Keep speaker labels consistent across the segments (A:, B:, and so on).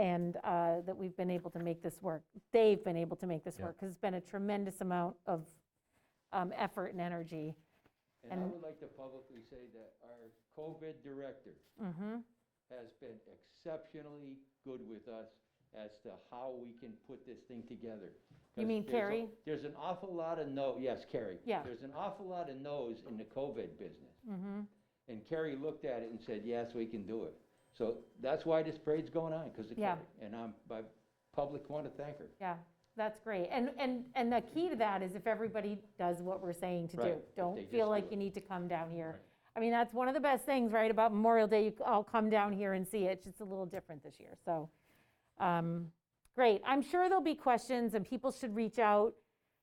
A: and uh, that we've been able to make this work. They've been able to make this
B: Yeah.
A: work, because it's been a tremendous amount of um, effort and energy.
C: And I
A: And-
C: would like to publicly say that our COVID director
A: Mhm.
C: has been exceptionally good with us as to how we can put this thing together. 'Cause
A: mean
C: there's a-
A: Carrie?
C: There's an awful lot of no, yes, Carrie.
A: Yeah.
C: There's an awful lot of no's in the COVID business. And Carrie looked at it and said, yes, we can do it. So that's why this parade's going on, because of
A: Yeah.
C: Carrie. And I'm, I public want to thank her.
A: Yeah, that's great. And, and, and the key to that is if everybody does what we're saying to
C: Right,
A: do.
C: if they
A: Don't
C: just
A: feel
C: do
A: like
C: it.
A: you need to come down here. I mean, that's one of the best things, right, about Memorial Day, you all come down here and see it. It's just a little different this year, so. um, Great. I'm sure there'll be questions and people should reach out.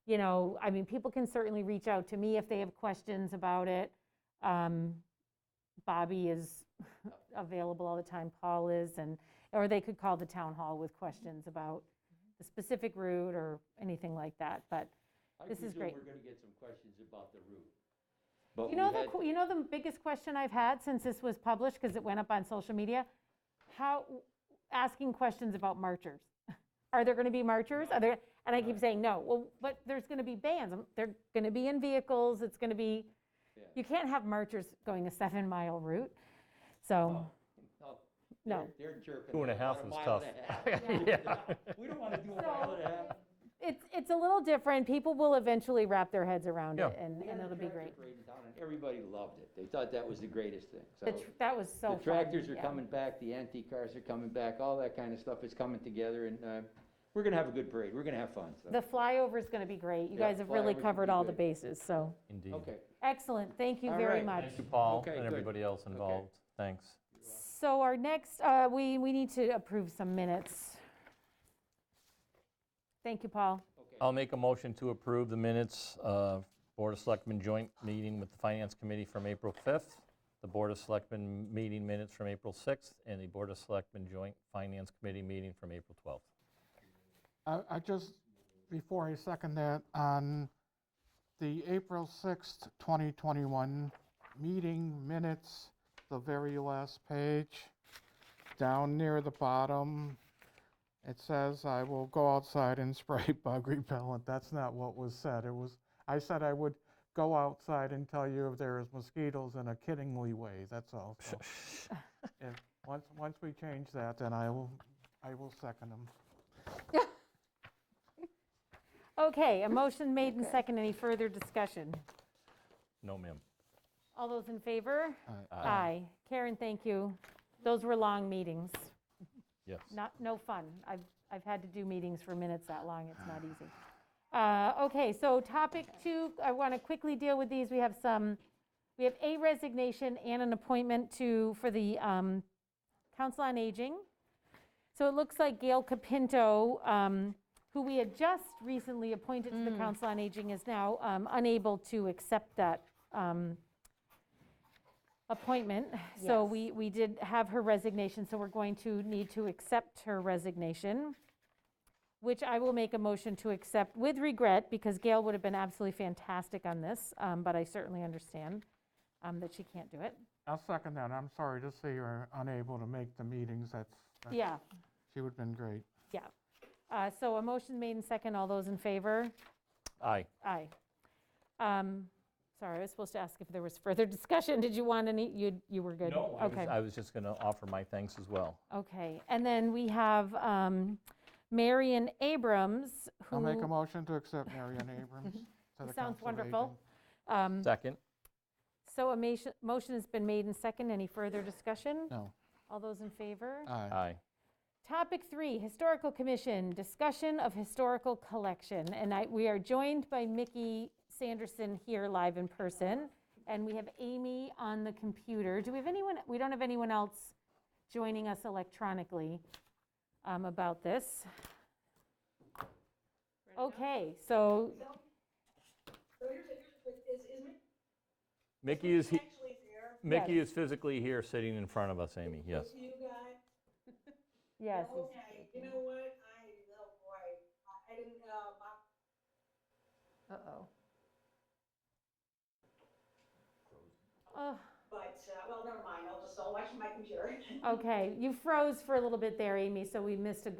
A: You know, I mean, people can certainly reach out to me if they have questions about it. Um, Bobby is available all the time, Paul is, and, or they could call the town hall with questions about the specific route or anything like that, but,
C: I
A: This is
C: presume
A: great.
C: we're going to get some questions about the route. But
A: you know,
C: we
A: the,
C: had-
A: qu- you know the biggest question I've had since this was published, because it went up on social media? How, asking questions about marchers. Are there going to be marchers? Are there, and I keep saying, no, well, but there's going to be bands, Um, they're going to be in vehicles, it's going to be,
C: Yeah.
A: you can't have marchers going a seven-mile route, so,
C: Oh. No.
A: No.
C: they're- They're jerking.
B: Two and a
C: it about
B: half is
C: mile and
B: tough.
C: a half.
B: Yeah.
C: We don't want to do a
A: So-
C: mile and a half.
A: it's, it's a little different, people will eventually wrap their heads around it,
B: Yeah.
A: and,
C: We
A: and
C: had a
A: it'll be
C: tractor
A: great.
C: parade in town, and Everybody loved it. They thought that was the greatest thing, so.
A: The tr- That was so
C: The
A: fun.
C: tractors are
A: yeah.
C: coming back, the antique cars are coming back, all that kind of stuff is coming together, and uh, we're going to have a good parade. We're going to have fun, so.
A: The flyover is going to be great. You
C: Yeah,
A: guys have really
C: flyover's gonna
A: covered
C: be
A: all the
C: great.
A: bases, so,
B: Indeed.
C: Okay.
A: excellent. Thank you
C: All
A: very
C: right.
A: much.
B: Thank you, Paul,
C: Okay,
B: and
C: good.
B: everybody else involved. Thanks.
A: So our next, uh, we, we need to approve some minutes. Thank you, Paul.
C: Okay.
B: I'll make a motion to approve the minutes of Board of Selectmen joint meeting with the Finance Committee from April 5th, the Board of Selectmen meeting minutes from April 6th, and the Board of Selectmen joint Finance Committee meeting from April 12th.
D: I, I just, before I second that, on the April 6th, 2021 meeting minutes, the very last page, down near the bottom, it says, "I will go outside and spray bug repellent." That's not what was said. It was, I said I would go outside and tell you if there is mosquitoes in a kiddingly way, that's all. So, if, once, once we change that, then I will, I will second them.
A: Okay, a motion made and second. Any further discussion?
B: No, ma'am.
A: All those in favor?
D: Aye.
A: Aye. Karen, thank you. Those were long meetings.
B: Yes.
A: Not, no fun. I've, I've had to do meetings for minutes that long, it's not easy. Uh, Okay, so topic two, I want to quickly deal with these. We have some, we have a resignation and an appointment to, for the um, Council on Aging. So it looks like Gail Capinto, um, who we had just recently appointed to the Council on Aging, is now um, unable to accept that um, appointment. So
E: Yes.
A: we, we did have her resignation, so we're going to need to accept her resignation, which I will make a motion to accept with regret, because Gail would have been absolutely fantastic on this, um, but I certainly understand um, that she can't do it.
D: I'll second that. I'm sorry to see you're unable to make the meetings. That's, that's-
A: Yeah.
D: she would have been great.
A: Yeah. Uh, So a motion made and second. All those in favor?
B: Aye.
A: Aye. Um, Sorry, I was supposed to ask if there was further discussion. Did you want any? You, you were good?
B: No, I was-
A: Okay.
B: I was just going to offer my thanks as well.
A: Okay. And then we have um, Marion Abrams, who.
D: I'll make a motion to accept Marion Abrams to the
A: Sounds
D: Council of
A: wonderful.
D: Aging.
A: um,
B: Second?
A: So a mation- motion has been made and second. Any further discussion?
D: No,
A: All those in favor?
D: aye.
B: Aye.
A: Topic three, Historical Commission, discussion of historical collection. And I, we are joined by Mickey Sanderson here live in person, and we have Amy on the computer. Do we have anyone, we don't have anyone else joining us electronically um, about this? Okay, so,
F: So here's, here's, is, is Mick
B: Mickey is, he-
F: actually there?
B: Mickey is physically here, sitting in front of us, Amy, yes.
F: You guys?
A: yes,
F: Okay, you know what? I, oh boy, I- I didn't, uh, my-
E: Uh-oh.
A: oh,
F: but, uh, well, never mind, I'll just so much my computer.
A: Okay, you froze for a little bit there, Amy, so we missed a good